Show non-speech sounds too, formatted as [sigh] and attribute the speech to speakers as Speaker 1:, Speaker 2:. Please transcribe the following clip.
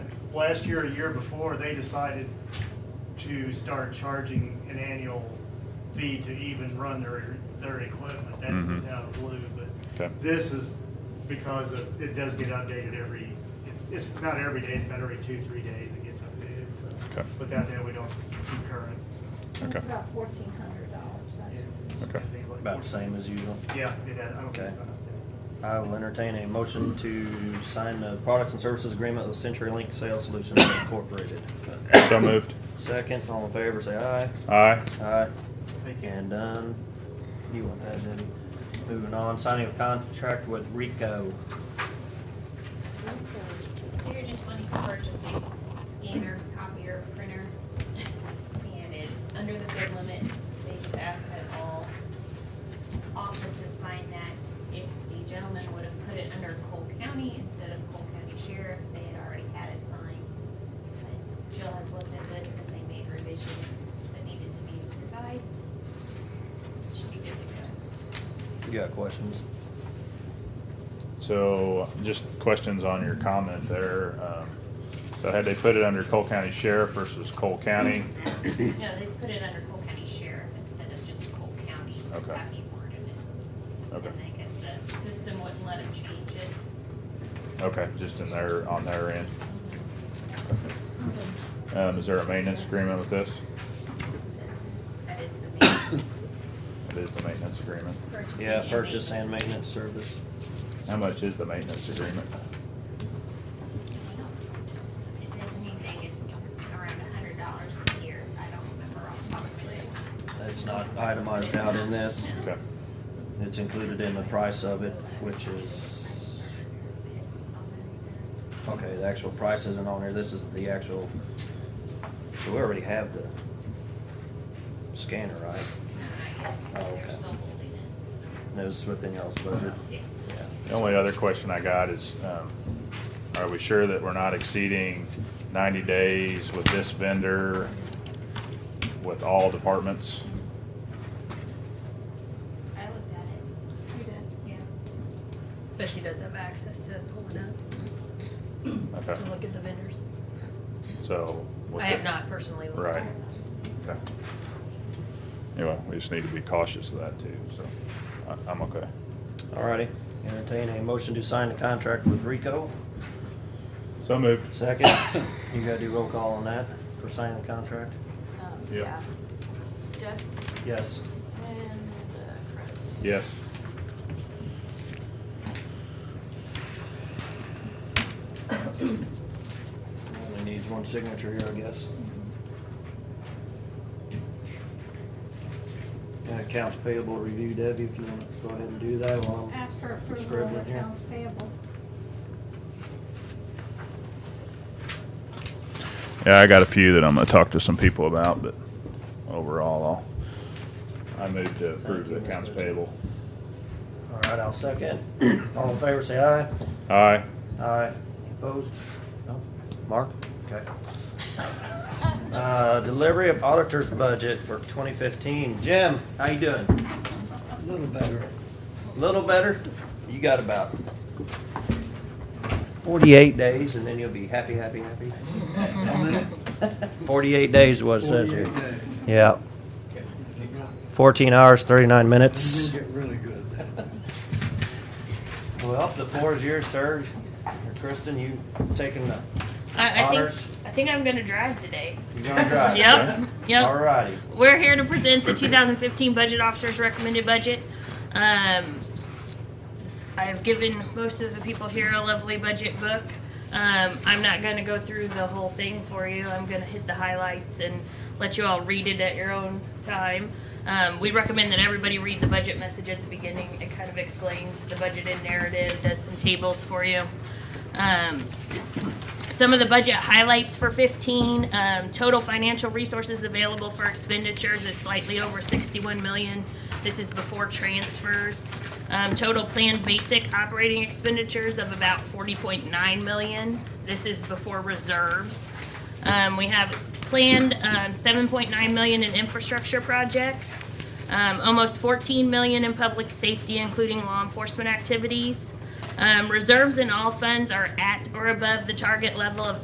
Speaker 1: last year, a year before, they decided to start charging an annual fee to even run their, their equipment. That's just
Speaker 2: Mhm.
Speaker 1: out of the blue, but
Speaker 2: Okay.
Speaker 1: this is because of, it does get updated every, it's, it's not every day, it's about every two, three days it gets updated, so.
Speaker 2: Okay.
Speaker 1: Without that, we don't keep current, so.
Speaker 2: Okay.
Speaker 3: It's about fourteen hundred dollars.
Speaker 1: yeah.
Speaker 2: Okay.
Speaker 1: Things like-
Speaker 4: About the same as usual.
Speaker 1: Yeah, it has, I don't think it's
Speaker 4: Okay.
Speaker 1: not updated.
Speaker 4: I will entertain a motion to sign the products and services agreement with CenturyLink Sales Solutions Incorporated.
Speaker 2: So moved.
Speaker 4: Second, all in favor, say aye.
Speaker 2: Aye.
Speaker 4: Aye.
Speaker 1: Thank you.
Speaker 4: And done. You want that, Debbie? Moving on, signing of contract with Rico.
Speaker 5: We were just wanting to purchase a scanner, copier, printer, and it's under the bid limit. They just asked that all offices sign that. If the gentleman would have put it under Cole County instead of Cole County Sheriff, they had already had it signed. But Jill has looked at this and they made revisions that needed to be revised. Should be good to
Speaker 4: You got questions?
Speaker 2: So just questions on your comment there. Um, So had they put it under Cole County Sheriff versus Cole County?
Speaker 5: go. No, they put it under Cole County Sheriff instead of just Cole County. That's
Speaker 2: Okay.
Speaker 5: how he worded it.
Speaker 2: Okay,
Speaker 5: And I guess the system wouldn't let them change it.
Speaker 2: okay, just in their, on their end. Um, is there a maintenance agreement with this?
Speaker 5: That is the maintenance.
Speaker 2: It is the maintenance agreement.
Speaker 5: purchasing
Speaker 4: Yeah,
Speaker 5: and
Speaker 4: purchase and maintenance service.
Speaker 2: How much is the maintenance agreement?
Speaker 5: If there's anything, it's around a hundred dollars a year. I don't remember off the top of my head.
Speaker 4: It's not itemized out in this.
Speaker 2: Okay,
Speaker 4: It's included in the price of it, which is, okay, the actual price isn't on here. This is the actual, so we already have the scanner, right?
Speaker 5: Not yet.
Speaker 4: Oh,
Speaker 5: They're
Speaker 4: okay.
Speaker 5: still holding
Speaker 4: And it was within y'all's budget.
Speaker 5: it. Yes.
Speaker 2: the only other question I got is, um, are we sure that we're not exceeding ninety days with this vendor with all departments?
Speaker 5: I looked at it.
Speaker 6: You did.
Speaker 5: Yeah.
Speaker 6: But she does have access to pull it up,
Speaker 2: Okay,
Speaker 6: to look at the vendors.
Speaker 2: so. with
Speaker 6: I have
Speaker 2: the-
Speaker 6: not personally looked.
Speaker 2: Right. Okay. Anyway, we just need to be cautious of that too, so I- I'm okay.
Speaker 4: Alrighty, entertain a motion to sign the contract with Rico.
Speaker 2: So moved.
Speaker 4: Second, you gotta do roll call on that for signing the contract?
Speaker 7: Um,
Speaker 2: Yeah.
Speaker 7: Yeah. Jeff
Speaker 4: Yes.
Speaker 7: and uh, Chris.
Speaker 2: Yes.
Speaker 4: Only needs one signature here, I guess. And accounts payable review, Debbie, if you wanna go ahead and do that while I'm.
Speaker 3: Ask for approval of
Speaker 4: Scribbling here.
Speaker 3: accounts payable.
Speaker 2: Yeah, I got a few that I'm gonna talk to some people about, but overall, I'll. I move to approve the accounts payable.
Speaker 4: Alright, I'll second. [clears throat] All in favor, say aye.
Speaker 2: Aye.
Speaker 4: Aye. Opposed? No? Mark? Okay. [laughs] Uh, delivery of auditor's budget for twenty fifteen. Jim, how you doing?
Speaker 8: A little better.
Speaker 4: Little better? You got about forty-eight days and then you'll be happy, happy, happy.
Speaker 8: How many?
Speaker 4: Forty-eight days was it says here.
Speaker 8: 48 days.
Speaker 4: Yeah,
Speaker 8: You're
Speaker 4: fourteen hours, thirty-nine
Speaker 8: gonna
Speaker 4: minutes.
Speaker 8: get really good.
Speaker 4: Well, the floor is yours, sir. Kristen, you taking the,
Speaker 6: I, I
Speaker 4: Otters.
Speaker 6: think, I think I'm gonna drive today.
Speaker 4: you gonna drive?
Speaker 6: Yep, yep.
Speaker 4: All righty.
Speaker 6: We're here to present the 2015 budget officer's recommended budget. Um, I've given most of the people here a lovely budget book. Um, I'm not going to go through the whole thing for you. I'm going to hit the highlights and let you all read it at your own time. Um, we recommend that everybody read the budget message at the beginning. It kind of explains the budget and narrative, does some tables for you. Um, some of the budget highlights for 15, um, total financial resources available for expenditures is slightly over 61 million. This is before transfers. Um, total planned basic operating expenditures of about 40.9 million. This is before reserves. Um, we have planned um, 7.9 million in infrastructure projects, um, almost 14 million in public safety, including law enforcement activities. Um, reserves in all funds are at or above the target level of